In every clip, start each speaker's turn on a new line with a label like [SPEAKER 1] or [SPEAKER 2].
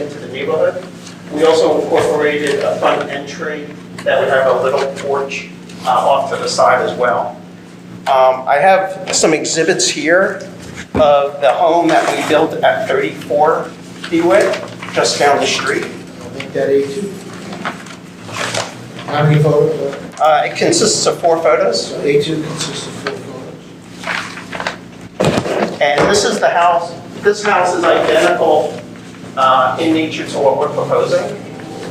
[SPEAKER 1] into the neighborhood. We also incorporated a front entry that would have a little porch uh, off to the side as well. Um, I have some exhibits here of the home that we built at 34 Dewitt, just down the street.
[SPEAKER 2] I'll make that A2. How many photos?
[SPEAKER 1] Uh, It consists of four photos,
[SPEAKER 2] So A2 consists of four photos.
[SPEAKER 1] and this is the house, this house is identical uh, in nature to what we're proposing.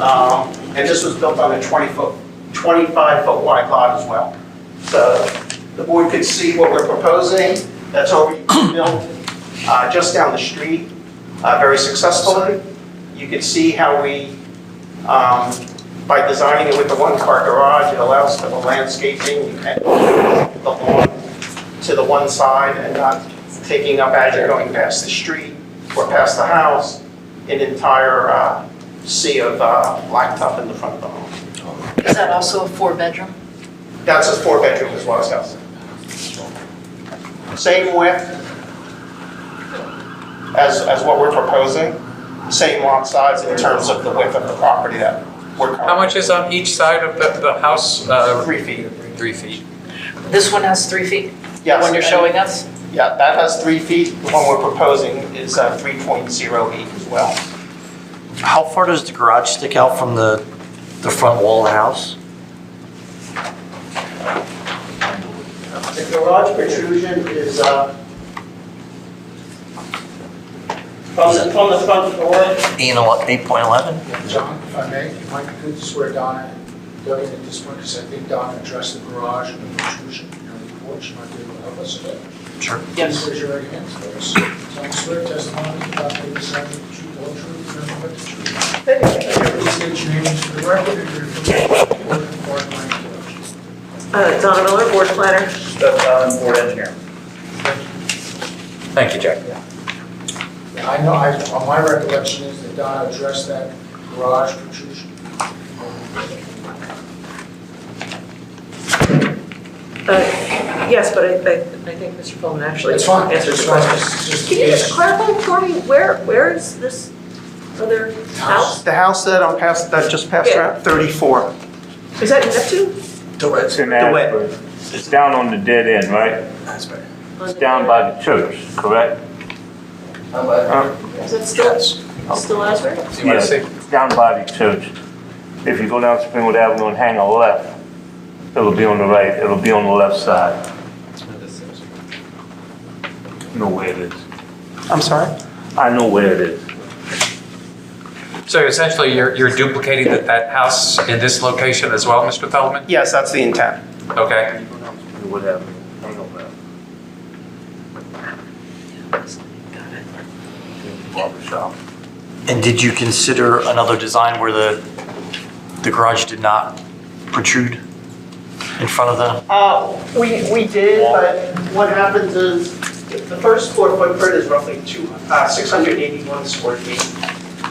[SPEAKER 1] Um, And this was built on a 20-foot, 25-foot wide lot as well. So the board could see what we're proposing, that's already built uh, just down the street, uh, very successfully. You can see how we, um, by designing it with the one-car garage, it allows for the landscaping and the lawn to the one side and not taking up as you're going past the street or past the house, an entire uh, sea of uh, blacktop in the front of the home.
[SPEAKER 3] Is that also a four-bedroom?
[SPEAKER 1] That's a four-bedroom as well as house. Same width as, as what we're proposing, same lot size in terms of the width of the property that we're covering.
[SPEAKER 4] How much is on each side of the, the house? Uh,
[SPEAKER 1] Three feet.
[SPEAKER 4] Three feet.
[SPEAKER 3] This one has three feet, the
[SPEAKER 1] Yes,
[SPEAKER 3] one you're
[SPEAKER 1] and-
[SPEAKER 3] showing us?
[SPEAKER 1] Yeah, that has three feet. The one we're proposing is uh, 3.08 as well.
[SPEAKER 5] How far does the garage stick out from the, the front wall of the house?
[SPEAKER 1] The garage protrusion is, uh, from the, from the front door,
[SPEAKER 5] Eight and ele- 8.11?
[SPEAKER 2] John, if I may, if I could swear Donna and Doug in at this point, because I think Donna addressed the garage and the protrusion, you know, the porch, might be able to help us a bit.
[SPEAKER 5] Sure.
[SPEAKER 2] Please raise your right hand for us. So I swear testimony about the decided the truth, all truth, and nothing but the truth. Please state your names for the record and your information, or pardon my interruption.
[SPEAKER 6] Uh, Donna Miller, board planner.
[SPEAKER 7] board engineer.
[SPEAKER 4] Thank you, Jack.
[SPEAKER 2] I know, I, well, my recollection is that Donna addressed that garage protrusion.
[SPEAKER 6] Uh, Yes, but I, I I think Mr. Pullman actually
[SPEAKER 2] It's fine,
[SPEAKER 6] answered
[SPEAKER 2] it's
[SPEAKER 6] the
[SPEAKER 2] fine,
[SPEAKER 6] question.
[SPEAKER 2] it's just.
[SPEAKER 6] Can you just clarify for me, where, where is this other house?
[SPEAKER 1] the house that I'm past, that just passed around, 34.
[SPEAKER 6] Is that Neptune?
[SPEAKER 7] It's in
[SPEAKER 1] wet.
[SPEAKER 7] Asbury. It's down on the dead end, right? It's down by the church, correct? Uh,
[SPEAKER 6] Is that still, still Asbury?
[SPEAKER 7] Yeah, it's down by the church. If you go down Springwood Avenue and hang a left, it'll be on the right, it'll be on the left side. I Know where it is.
[SPEAKER 1] I'm sorry?
[SPEAKER 7] I know where it is.
[SPEAKER 4] So essentially, you're, you're duplicating that, that house in this location as well, Mr. Feldman?
[SPEAKER 1] Yes, that's the intent.
[SPEAKER 4] Okay.
[SPEAKER 7] Springwood Avenue, hang a left, barber shop.
[SPEAKER 5] And did you consider another design where the, the garage did not protrude in front of the?
[SPEAKER 1] Uh, We, we did, but what happens is, the first floor footprint is roughly two, uh, 681 square feet.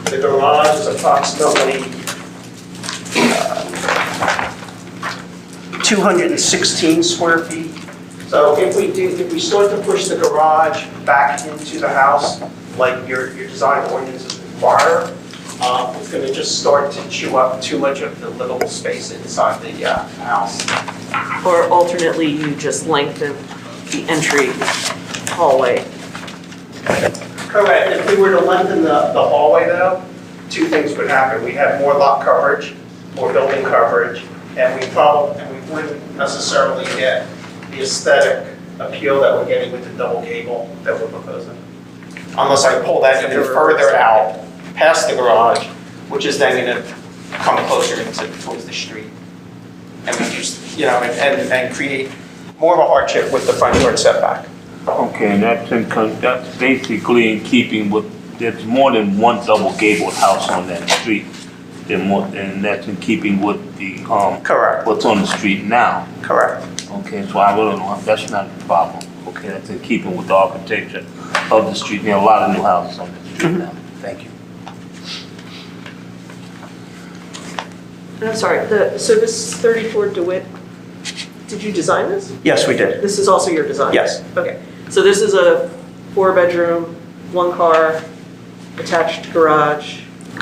[SPEAKER 1] The garage is approximately uh, 216 square feet. So if we do, if we start to push the garage back into the house, like your, your design ordinances require, uh, it's going to just start to chew up too much of the livable space inside the uh, house.
[SPEAKER 6] Or alternately, you just lengthen the entry hallway.
[SPEAKER 1] Correct, if we were to lengthen the, the hallway though, two things would happen, we'd have more lot coverage, more building coverage, and we probably, and we wouldn't necessarily get the aesthetic appeal that we're getting with the double gable that we're proposing. Unless I pull that even further out, past the garage, which is then gonna come closer into, towards the street. And reduce, you know, and, and- and create more of a hardship with the front yard setback.
[SPEAKER 7] Okay, and that's in, con- that's basically in keeping with, there's more than one double gabled house on that street. Than more, and that's in keeping with the, um,
[SPEAKER 1] Correct,
[SPEAKER 7] what's on the street now.
[SPEAKER 1] correct.
[SPEAKER 7] Okay, so I really don't, that's not a problem. Okay, that's in keeping with the architecture of the street. There are a lot of new houses on the street now. Thank you.
[SPEAKER 6] And I'm sorry, the, so this 34 DeWitt, did you design this?
[SPEAKER 1] Yes, we did.
[SPEAKER 6] This is also your design?
[SPEAKER 1] Yes.
[SPEAKER 6] Okay, so this is a four-bedroom, one-car attached garage